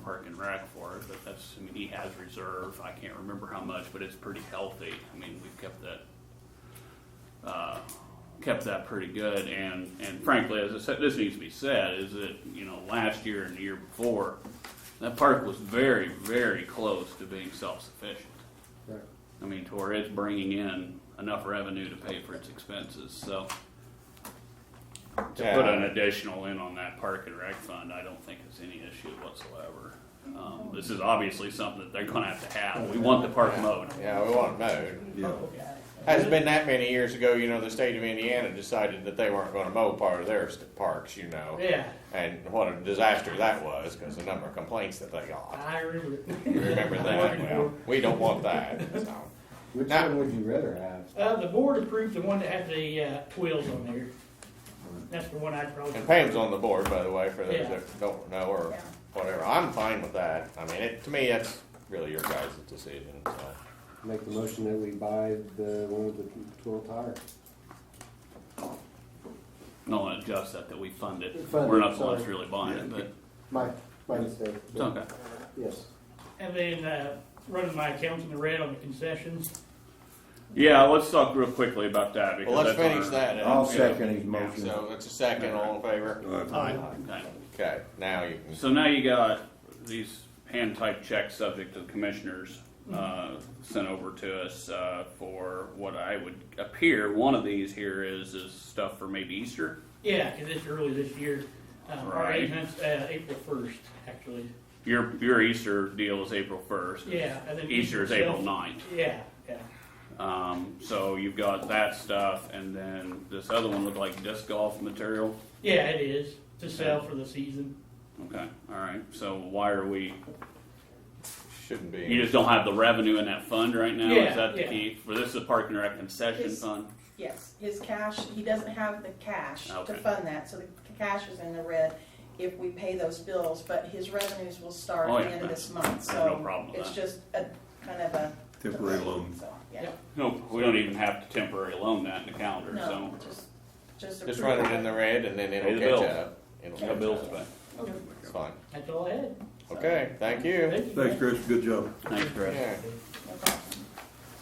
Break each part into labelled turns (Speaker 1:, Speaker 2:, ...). Speaker 1: Park and Rec for it, but that's, I mean, he has reserve, I can't remember how much, but it's pretty healthy. I mean, we've kept that, uh, kept that pretty good, and, and frankly, as I said, this needs to be said, is that, you know, last year and the year before, that park was very, very close to being self-sufficient.
Speaker 2: Right.
Speaker 1: I mean, to where it's bringing in enough revenue to pay for its expenses, so. To put an additional in on that park and rec fund, I don't think it's any issue whatsoever. Um, this is obviously something that they're gonna have to have, we want the park mowed.
Speaker 3: Yeah, we want it mowed.
Speaker 2: Yeah.
Speaker 3: Hasn't been that many years ago, you know, the state of Indiana decided that they weren't gonna mow part of their st- parks, you know.
Speaker 4: Yeah,
Speaker 3: And what a disaster that was, cause the number of complaints that they got.
Speaker 4: I remember.
Speaker 3: You remember that? Well, we don't want that, so.
Speaker 2: Which
Speaker 3: Now-
Speaker 2: one would you rather have?
Speaker 4: Uh, the board approved the one that had the, uh, twills on there. That's the one I'd probably.
Speaker 3: And Pam's on the board, by the way, for those
Speaker 4: Yeah.
Speaker 3: that don't know or whatever. I'm fine with that. I mean, it, to me, that's really your guys' decision, so.
Speaker 2: Make the motion that we buy the one with the twelve tire.
Speaker 1: No one adjusts that, that we fund it,
Speaker 2: Fund
Speaker 1: we're
Speaker 2: it,
Speaker 1: not the ones
Speaker 2: sorry.
Speaker 1: really buying it, but
Speaker 2: My, my mistake.
Speaker 1: it's okay.
Speaker 2: Yes.
Speaker 4: And then, uh, running my accounts in the red on the concessions.
Speaker 1: Yeah, let's talk real quickly about that because
Speaker 3: Well, let's
Speaker 1: that's on
Speaker 3: finish
Speaker 1: our-
Speaker 3: that. and-
Speaker 5: I'll second his motion.
Speaker 3: So it's a second, all in favor?
Speaker 1: Okay.
Speaker 3: Okay, now you can.
Speaker 1: So now you got these hand type checks subject to the commissioners, uh, sent over to us, uh, for what I would appear, one of these here is, is stuff for maybe Easter.
Speaker 4: Yeah, 'cause it's early this year. Um, our
Speaker 1: Right.
Speaker 4: agent's, uh, April first, actually.
Speaker 1: Your, your Easter deal is April first.
Speaker 4: Yeah, and then.
Speaker 1: Easter is April ninth.
Speaker 4: Yeah, yeah.
Speaker 1: Um, so you've got that stuff and then this other one looked like disc golf material.
Speaker 4: Yeah, it is, to sell for the season.
Speaker 1: Okay, all right. So why are we,
Speaker 3: Shouldn't be.
Speaker 1: you just don't have the revenue in that fund right now?
Speaker 4: Yeah,
Speaker 1: Is that the
Speaker 4: yeah.
Speaker 1: key? For this is a park and rec concession
Speaker 6: It's-
Speaker 1: fund?
Speaker 6: Yes, his cash, he doesn't have the cash to
Speaker 1: Okay.
Speaker 6: fund that, so the cash is in the red if we pay those bills, but his revenues will start
Speaker 1: Oh,
Speaker 6: at
Speaker 1: yeah,
Speaker 6: the end of this month,
Speaker 1: I have no
Speaker 6: so.
Speaker 1: problem with
Speaker 6: It's
Speaker 1: that.
Speaker 6: just a, kind of a.
Speaker 5: Temporary loan.
Speaker 6: So, yeah,
Speaker 4: Yep.
Speaker 1: No, we don't even have to temporary loan that in the calendar, so.
Speaker 6: no, just, just.
Speaker 3: Just
Speaker 6: approve
Speaker 3: run it in the red and then
Speaker 1: Pay
Speaker 3: it'll
Speaker 1: the
Speaker 3: catch
Speaker 1: bill.
Speaker 3: up. It'll
Speaker 1: No
Speaker 3: catch
Speaker 1: bills to
Speaker 3: up.
Speaker 1: pay.
Speaker 4: Okay,
Speaker 3: It's fine.
Speaker 4: that's all I had.
Speaker 3: Okay, thank you.
Speaker 4: Thank you.
Speaker 5: Thanks, Chris, good job.
Speaker 1: Thanks, Chris.
Speaker 3: Yeah,
Speaker 6: No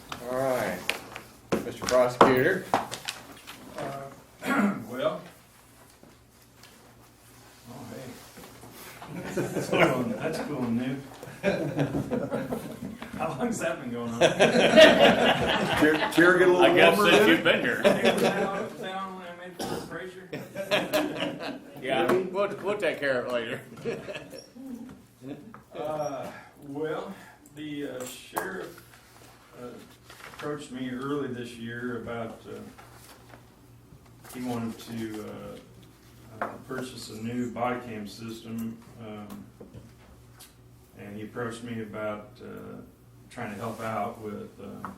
Speaker 6: problem.
Speaker 3: all right. Mr. Prosecutor,
Speaker 7: Uh, Well. Oh, hey. That's cool, that's cool and new. How long's that been going on?
Speaker 5: Chair, chair get a
Speaker 1: I
Speaker 5: little
Speaker 1: guess
Speaker 5: warmer
Speaker 1: since
Speaker 5: then?
Speaker 1: you've been here.
Speaker 7: Hey, was that on, was that on when I made for Frazier?
Speaker 1: Yeah.
Speaker 3: we'll, we'll take care of it later.
Speaker 7: Uh, well, the uh, sheriff uh, approached me early this year about, uh, he wanted to, uh, uh, purchase a new body cam system. um, And he approached me about, uh, trying to help out with, uh,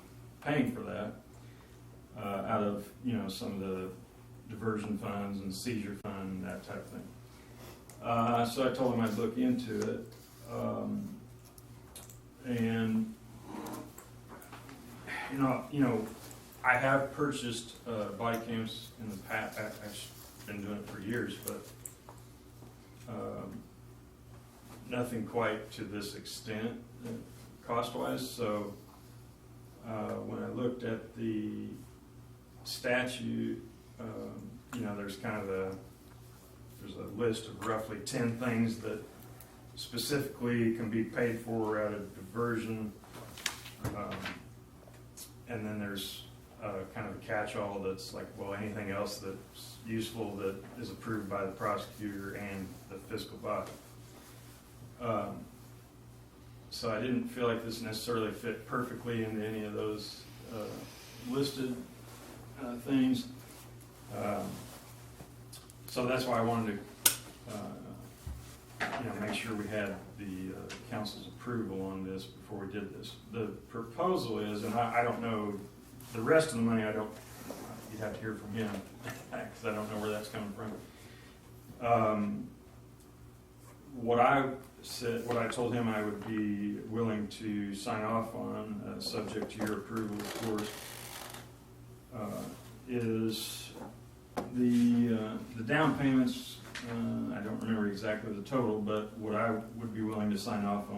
Speaker 7: paying for that. Uh, out of, you know, some of the diversion funds and seizure fund, and that type of thing. Uh, so I told him I'd look into it. Um, and you know, you know, I have purchased uh, body cams in the past. I, I've been doing it for years, but um, nothing quite to this extent uh, cost-wise. So uh, when I looked at the statute, um, you know, there's kind of a there's a list of roughly ten things that specifically can be paid for out of diversion. Um, And then there's uh, kind of a catch-all that's like, well, anything else that's useful that is approved by the prosecutor and the fiscal body. Um, So I didn't feel like this necessarily fit perfectly into any of those uh, listed uh, things. Um, So that's why I wanted to uh, you know, make sure we had the uh, council's approval on this before we did this. The proposal is, and I, I don't know, the rest of the money, I don't, you'd have to hear from him, because I don't know where that's coming from. Um, What I said, what I told him I would be willing to sign off on, uh, subject to your approval, of course, uh, is the, uh, the down payments Uh, I don't remember exactly the total, but what I would be willing to sign off on